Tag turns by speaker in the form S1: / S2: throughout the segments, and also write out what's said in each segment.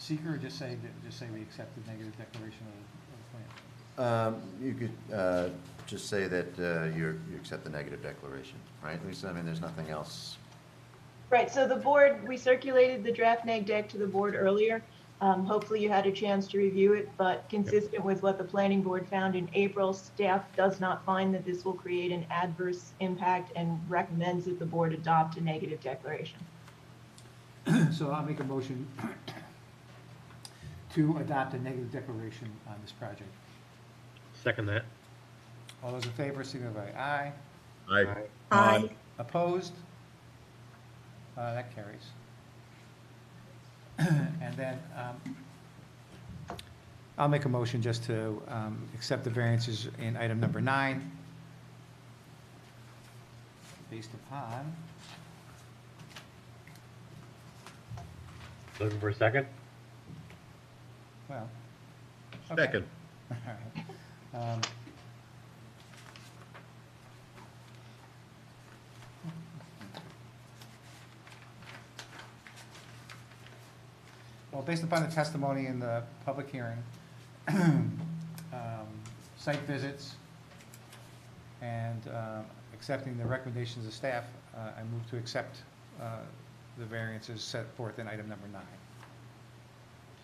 S1: seeker, or just say, just say we accept the negative declaration of the- of the plan?
S2: Um, You could uh, just say that uh, you're, you accept the negative declaration, right, Lisa? I mean, there's nothing else.
S3: Right, so the board, we circulated the draft neg deck to the board earlier. Um, Hopefully you had a chance to review it, but consistent with what the planning board found in April, staff does not find that this will create an adverse impact and recommends that the board adopt a negative declaration.
S1: So I'll make a motion to adopt a negative declaration on this project.
S4: Second that.
S1: All those in favor, signify by aye.
S5: Aye.
S6: Aye.
S1: Opposed? Uh, That carries. And then um, I'll make a motion just to um, accept the variances in item number nine based upon,
S4: Looking for a second?
S1: well. okay.
S5: Second.
S1: Alright. Um, Well, based upon the testimony in the public hearing, um, site visits, and uh, accepting the recommendations of staff, uh, I move to accept uh, the variances set forth in item number nine.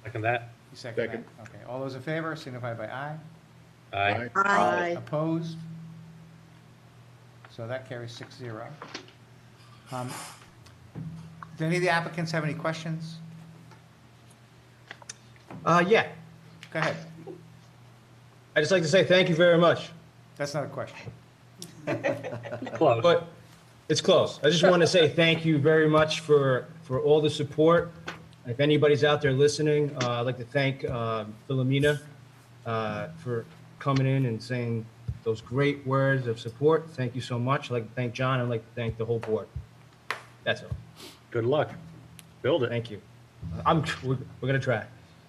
S4: Second that.
S1: You second that?
S5: Second.
S1: Okay, all those in favor signify by aye.
S4: Aye.
S6: Aye.
S1: Opposed? So that carries six zero. Um, Do any of the applicants have any questions?
S7: Uh, yeah,
S1: Go ahead.
S7: I'd just like to say thank you very much,
S1: That's not a question.
S4: Close.
S7: but it's close. I just want to say thank you very much for, for all the support. If anybody's out there listening, uh, I'd like to thank, uh, Philomena, uh, for coming in and saying those great words of support. Thank you so much. I'd like to thank John. I'd like to thank the whole board. That's all.
S4: Good luck. Build it.
S7: Thank you. I'm, we're, we're gonna try.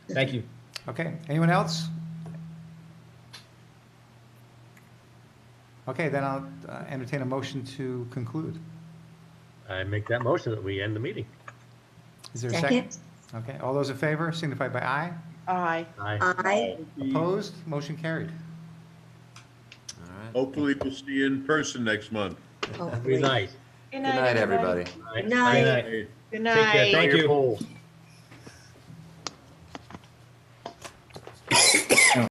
S7: Thank you.
S1: Okay, anyone else? Okay, then I'll uh, entertain a motion to conclude.
S4: I make that motion that we end the meeting.
S1: Is there a second?
S6: Second.
S1: Okay, all those in favor signify by aye.
S3: Aye.
S4: Aye.
S6: Aye.
S1: Opposed? Motion carried.
S2: All right.
S5: Hopefully we'll see you in person next month.
S4: Be nice.
S2: Good
S3: Good
S2: night, everybody.
S6: Night.
S7: Good night.
S3: Good
S7: Take care.
S3: night.
S7: Thank
S4: Your
S7: you.
S4: polls.